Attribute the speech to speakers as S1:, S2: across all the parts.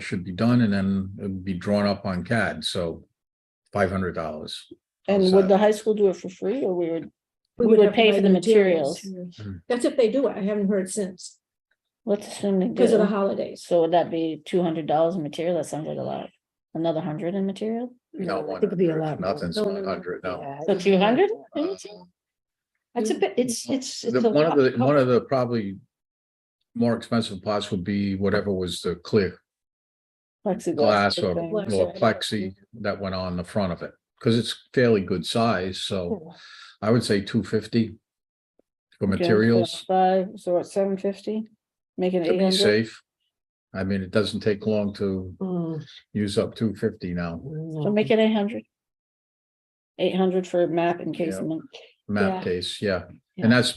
S1: should be done and then it'd be drawn up on CAD, so five hundred dollars.
S2: And would the high school do it for free or we would, We would
S3: have to
S2: pay
S3: buy
S2: for the materials.
S1: Mm.
S3: That's if they do it. I haven't heard since
S2: let's assume they
S3: because of the
S2: do.
S3: holidays.
S2: So would that be two hundred dollars in material? That sounds like a lot. Another hundred in material?
S1: No,
S4: I think it'd be a lot. more.
S1: Nothing's
S3: No, no, no.
S1: one hundred, no. Uh,
S4: Yeah,
S2: So
S4: it'd be a
S2: two
S4: lot
S2: hundred?
S4: more. That's a bit, it's, it's. it's
S1: The,
S4: a
S1: one of
S4: lot.
S1: the, one of the probably more expensive parts would be whatever was the clear glass or
S3: Plexiglass.
S1: or plexi that went on the front of it. Cause it's fairly good size, so
S4: Yeah.
S1: I would say two fifty for materials
S2: Five, so what, seven fifty? Make it
S1: to
S2: eight
S1: be
S2: hundred?
S1: safe. I mean, it doesn't take long to
S4: Mm,
S1: use up two fifty now.
S2: So
S4: no.
S2: make it eight hundred. Eight hundred for map encasement.
S1: Map
S3: Yeah.
S1: case, yeah.
S4: Yeah.
S1: And that's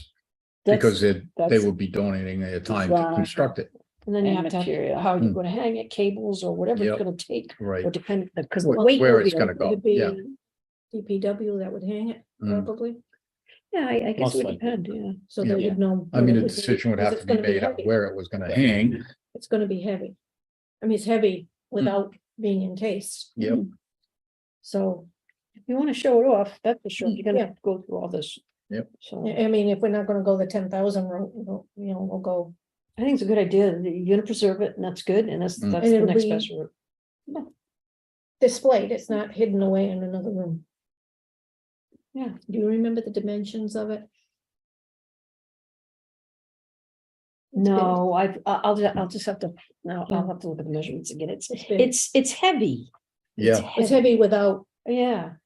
S2: That's-
S1: because they, they
S2: that's-
S1: would be donating their time to
S2: Right.
S1: construct it,
S4: And then you
S2: and
S4: have to,
S2: material.
S4: have- how you're
S1: Hmm.
S4: gonna hang it, cables or whatever
S1: Yep.
S4: it's gonna take,
S1: right?
S4: or depend,
S2: Uh,
S4: because.
S1: Where-
S4: weight
S1: where
S4: will be
S1: it's
S4: a-
S1: gonna go,
S3: It'd be
S1: yeah.
S3: DPW that would hang it
S1: Mm.
S3: probably.
S4: Yeah, I, I guess
S5: Most
S4: it would
S5: likely.
S4: depend, yeah.
S3: So they
S1: Yeah.
S3: would know.
S1: I
S3: what
S1: mean,
S3: it
S1: a
S3: would be,
S1: decision would
S3: because
S1: have
S3: it's
S1: to be
S3: gonna
S1: made on
S3: heavy.
S1: where it was gonna hang.
S3: It's gonna be heavy. I mean, it's heavy without being encased.
S1: Yep.
S3: So,
S4: If you wanna show it off, that's for sure,
S3: Mm,
S4: you're gonna
S3: yeah.
S4: have to go through all this.
S1: Yep.
S4: So,
S3: I I mean, if we're not gonna go the ten thousand route, we'll- you know, we'll go,
S4: I think it's a good idea, that you're gonna preserve it, and that's good, and that's,
S1: Mm.
S4: that's
S3: And
S4: the
S3: it'll
S4: next
S3: be-
S4: best route.
S3: displayed, it's not hidden away in another room.
S4: Yeah.
S3: Do you remember the dimensions of it? It's big.
S4: No, I've, I- I'll, ju- I'll just have to, no, I'll
S3: Yeah.
S4: have to look at the measurements again, it's,
S3: It's big.
S4: it's, it's heavy.
S1: Yeah.
S3: It's heavy without
S4: Yeah,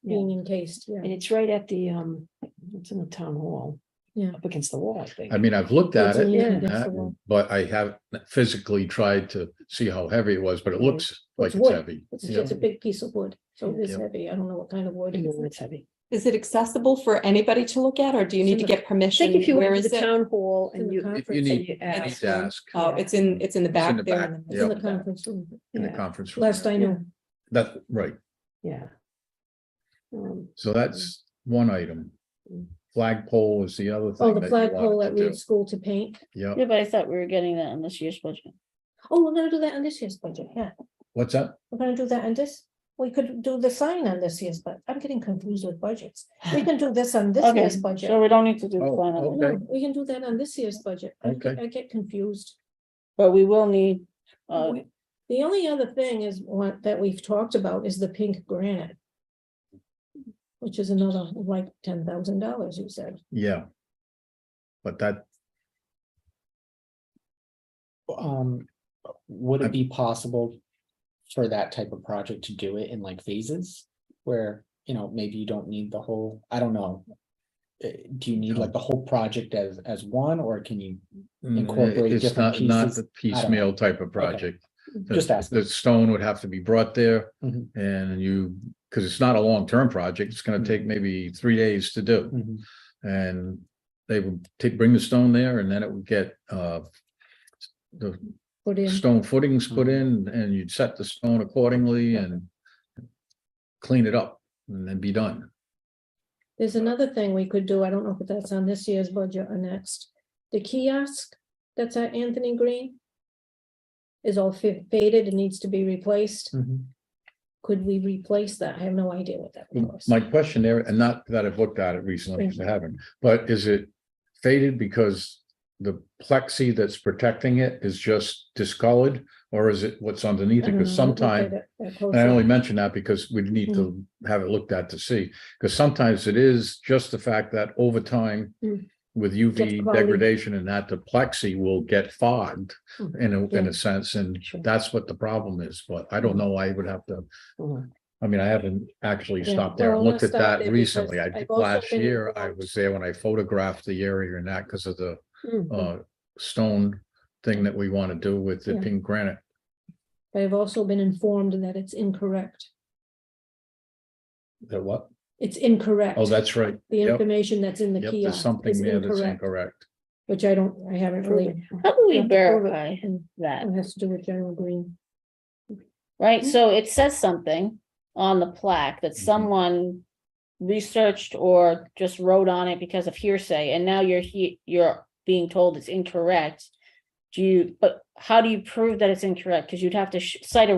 S4: yeah,
S3: being encased,
S4: and
S3: yeah.
S4: it's right at the, um, it's in the town hall.
S3: Yeah.
S4: Up against the wall, I think.
S1: I mean, I've looked at
S3: It's-
S1: it,
S3: yeah,
S1: and
S3: that's
S1: that,
S3: the one.
S1: but I haven't physically tried to see how heavy it was, but it
S4: Yeah.
S1: looks like it's
S3: wood.
S1: heavy.
S3: It's
S1: Yeah.
S3: just a big piece of wood, so it is
S1: Yeah.
S3: heavy, I don't know what kind of wood.
S4: I
S3: it
S4: know
S3: is.
S4: It's heavy.
S6: Is it accessible for anybody to look at, or do you need to
S4: Sort of.
S6: get permission?
S4: Think if you
S6: Where
S4: went to
S6: is
S4: the
S6: it?
S4: town hall
S3: in
S4: and
S3: the
S4: you.
S3: conference
S1: If you need,
S4: and you ask-
S1: to ask
S6: Oh, it's in, it's in the
S1: in
S6: back
S1: the
S6: there.
S1: back,
S6: in the
S3: It's in
S6: middle.
S3: the conference room,
S1: in the
S4: yeah,
S1: conference room.
S3: last I know.
S1: That, right,
S4: Yeah. Um,
S1: so that's one item.
S4: Mm.
S1: Flagpole is the other
S3: Oh,
S1: thing.
S3: the
S1: that you
S3: flagpole
S1: wanted
S3: at
S1: to
S3: Reed
S1: do.
S3: School to paint.
S1: Yeah,
S2: Yeah, but I thought we were getting that in this year's budget.
S3: Oh, we're gonna do that on this year's budget, yeah.
S1: what's that?
S3: We're gonna do that on this. We could do the sign on this year's, but I'm getting confused with budgets. We can do this on this
S2: Okay,
S3: year's
S2: so
S3: budget.
S2: we don't need to do the
S1: Oh,
S2: final,
S1: oh.
S3: No,
S1: okay.
S3: we can do that on this year's budget. I get-
S1: Okay.
S3: I get confused.
S2: but we will need, uh,
S3: We- The only other thing is one that we've talked about is the pink granite. Which is another like ten thousand dollars, you said.
S1: Yeah. But that,
S5: Um, would it be possible for that type of project to do it in like phases? Where, you know, maybe you don't need the whole, I don't know. Uh, do you need like the whole project as, as one, or can you,
S1: mm,
S5: Incorporate
S1: it's
S5: different
S1: not, not
S5: pieces.
S1: the piecemeal type of project. The-
S5: Just asking.
S1: The stone would have to be brought there
S5: Mhm.
S1: and you, because it's not a long-term project, it's gonna
S5: Mhm.
S1: take maybe three days to do.
S5: Mhm.
S1: And they would take, bring the stone there and then it would get uh. The
S3: Put in,
S1: stone footings put
S5: Mm-hmm.
S1: in and you'd set the stone accordingly and. Clean it up and then be done.
S3: there's another thing we could do. I don't know if that's on this year's budget or next. The kiosk that's at Anthony Green. Is all fa- faded and needs to be replaced.
S5: Mhm.
S3: Could we replace that? I have no idea what that was.
S1: My question there, and not that I've looked at it recently, because I haven't, but is it faded because? The plexi that's protecting it is just discolored, or is it what's underneath
S3: Mm,
S1: it? Because sometimes And I only mention that because we need to have it looked at to see, because sometimes it is just the fact that over time.
S3: Mm.
S1: With
S3: Gets
S1: UV
S3: cloudy.
S1: degradation and that the plexi will get fogged
S4: Mm.
S1: in a, in
S3: Yeah.
S1: a sense, and
S4: Sure.
S1: that's what the problem is, but I don't know, I would have to.
S4: Mhm.
S1: I mean, I haven't actually
S3: Yeah.
S1: stopped there
S3: Well,
S1: and
S3: I
S1: looked at
S3: stopped there
S1: that
S3: because
S1: recently, I, did
S3: I've also
S1: last
S3: been
S1: year, I
S3: involved.
S1: was there when I photographed the area and that because of the
S4: mm,
S1: uh stone. Thing that we want to do with the
S3: Mm-hmm. Yeah.
S1: pink granite,
S3: But I've also been informed that it's incorrect.
S1: the what?
S3: It's incorrect.
S1: Oh, that's right,
S3: The
S1: yep.
S3: information that's in the
S1: yep,
S3: kiosk.
S1: there's something
S3: is
S1: there that's
S3: incorrect,
S1: incorrect.
S3: Which I don't, I haven't really,
S4: proven.
S2: how do we
S3: Yeah, the program.
S2: verify that?
S3: it has to do with General Green.
S2: Right, so it says something on the plaque that
S1: Mhm.
S2: someone researched or just wrote on it because of hearsay, and now you're he, you're being told it's incorrect. Do you, but how do you prove that it's incorrect? Because you'd have to sh- cite a